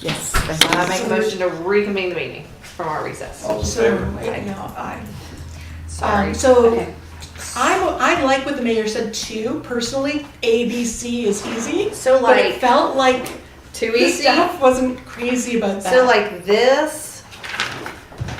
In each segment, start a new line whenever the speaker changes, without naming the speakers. Yes.
So I
thank
make
you.
a motion to reconvene the meeting from our recess.
All in
So,
favor?
wait, no, I,
Sorry.
um, so
Okay.
I, I like what the mayor said too, personally, A, B, C is easy.
So
But it
like,
felt like
too
the
easy?
staff wasn't crazy about that.
So like this,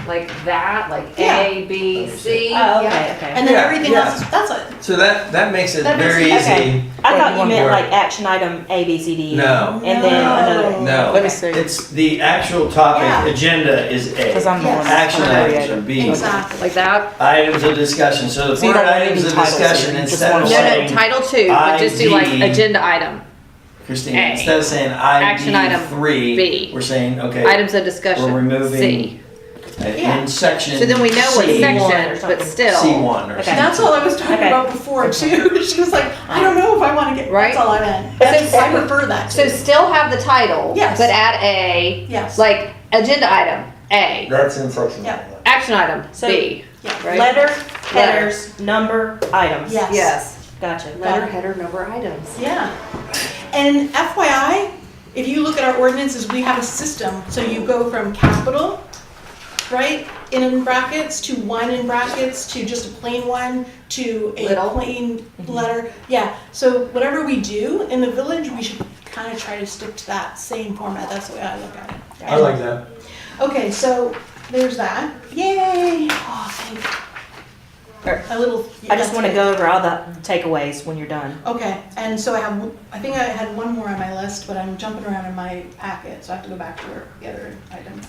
like that, like A, B, C.
Oh,
Yeah.
okay, okay.
And then
Yeah,
everything
yeah.
else, that's it.
So that, that makes it
That makes
very
it-
easy.
okay.
I thought you
One
meant
word.
like action item A, B, C, D. E.
No,
And then another.
no.
Let me see,
It's, the actual
Yeah.
topic, agenda is
because
A.
I'm the one.
Yes.
that's
Action items are
created.
B.
Exactly.
Like that?
Items of discussion, so the
So you
four
don't want
items
any
of
titles here,
discussion,
you just
instead
want
of
No,
I'm
no,
saying,
title two, but just do like
ID.
agenda item,
Christine,
A.
instead of saying
Action item
ID three,
B.
we're saying, okay,
items of
we're
discussion, C.
removing uh,
Yeah.
in section.
So then we know what
C,
section, but
C
still,
one or
Okay.
something.
That's all I was talking
Okay.
about before too. She was like, I don't know if I want to get,
Right.
that's all I meant.
So-
That's- I prefer that
so
too.
still have the title,
Yes.
but add A,
Yes.
like agenda item, A.
That's in section.
Yeah.
one.
Action item,
So-
B,
Yeah.
right?
Letter, headers, number, items.
Yes.
Yes,
Gotcha.
letter, header, number, items.
Yeah. And FYI, if you look at our ordinances, we have a system. So you go from capital, right, in brackets, to one in brackets, to just a plain one, to a
Little.
plain
Mm-hmm.
letter. Yeah, so whatever we do in the village, we should kind of try to stick to that same format. That's the way I look at it.
I like that.
Okay, so there's that. Yay! Oh, thank
Or-
A little.
I just want to
that's
go over all the takeaways when you're done.
good. Okay, and so I have, I think I had one more on my list, but I'm jumping around in my packet, so I have to go back to where the other item.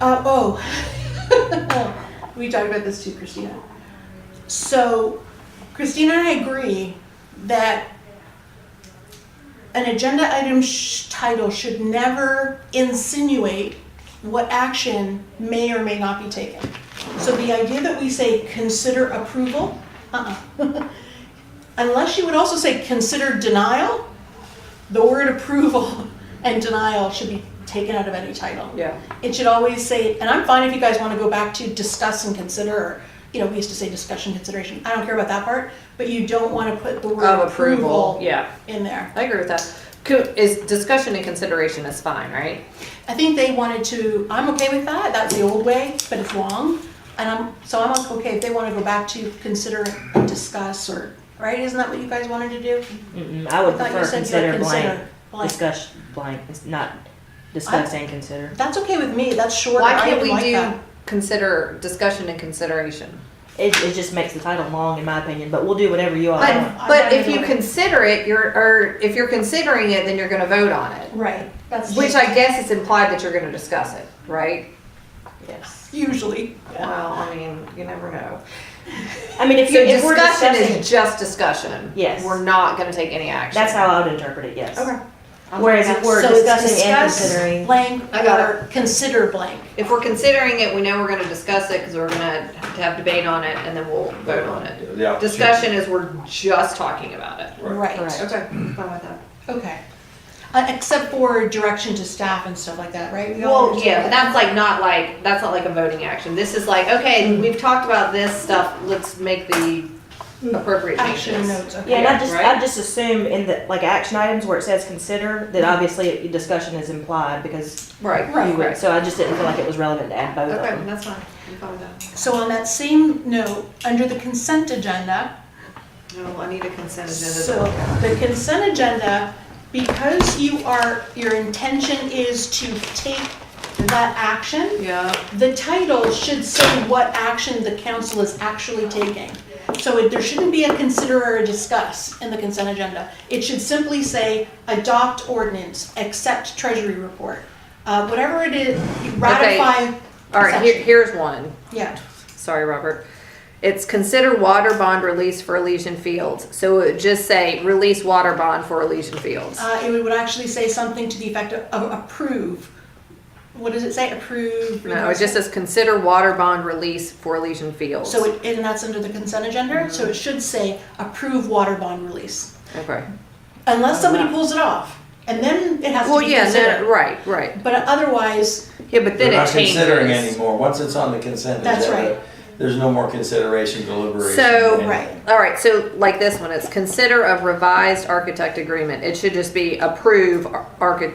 Uh, oh. we talked about this too, Christina. So Christina and I agree that an agenda item sh- title should never insinuate what action may or may not be taken. So the idea that we say consider approval, uh-uh. Unless you would also say consider denial, the word approval and denial should be taken out of any title.
Yeah.
It should always say, and I'm fine if you guys want to go back to discuss and consider, or, you know, we used to say discussion consideration. I don't care about that part, but you don't want to put the word
Of approval,
approval
yeah,
in there.
I agree with that. Co- Is discussion and consideration is fine, right?
I think they wanted to, I'm okay with that, that's the old way, but it's long. And I'm, so I'm okay if they want to go back to consider and discuss or, right, isn't that what you guys wanted to do?
Mm-mm, Mm, I would
I thought you
prefer
said you
consider
would
blank,
consider blank.
discuss blank, It's not discuss and consider.
That's okay with me, that's short,
Why
I
can't
would
we
like
do
that.
consider, discussion and consideration?
It, it just makes the title long in my opinion, but we'll do whatever you all
I-
want.
But,
I'm
but
not
if
gonna
you
do it.
consider it, you're, or if you're considering it, then you're gonna vote on it.
Right, that's.
Which I guess it's implied that you're gonna discuss it, right?
Yes.
Usually, yeah.
Well, I mean, you never know.
I mean, if you,
So
if we're
discussion
discussing,
is just discussion.
Yes.
We're not gonna take any action.
that's how I would interpret it, yes.
Okay.
Whereas if we're
So it's
discussing and
discuss
considering,
Blank
I got
or consider blank.
If we're considering it, we know we're gonna discuss it, cause we're gonna have debate on it, and then we'll vote on it.
Yeah.
Discussion is we're just talking about it.
Right,
Right.
Correct.
Okay, fine with that.
okay. Uh, except for direction to staff and stuff like that, right? We all
Well,
understand
yeah, but
that.
that's like not like, that's not like a voting action. This is like, okay, we've talked about this stuff, let's make the Hmm. appropriate
Action
changes.
notes, okay.
yeah, and I just,
Right.
I just assume in the, like, action items where it says consider, that obviously discussion is implied because
Mm-hmm. Right,
Right.
you
right,
would,
right.
so I just didn't feel like it was relevant to add both of
Okay,
them.
that's fine. I'm fine with that.
So on that same note, under the consent agenda,
No, I need a consent agenda. to
So
look at.
the consent agenda, because you are, your intention is to take that action,
Yeah,
the title should say what action the council is actually taking. So it- there shouldn't be a consider or a discuss in the consent agenda. It should simply say adopt ordinance, accept treasury report, uh, whatever it is, ratify.
all right, here, here's one.
Yeah,
Sorry, Robert. It's consider water bond release for Elysian Fields. So it would just say release water bond for Elysian Fields.
uh, it would actually say something to the effect of of approve. What does it say? Approve?
No, it just says consider water bond release for Elysian Fields.
So, it- and that's under the consent agenda, so it should say approve water bond release.
Okay.
Unless somebody pulls it off, and then it has to
Uh-huh. Well,
be
yeah, no,
considered.
right, right.
But otherwise,
Yeah, but
We're
then
not
it changes.
considering anymore, once it's on the consent agenda.
That's right.
There's no more consideration, deliberation.
So-
and-
Right.
All right, so like this one, it's consider of revised architect agreement. It should just be approve ar- archi-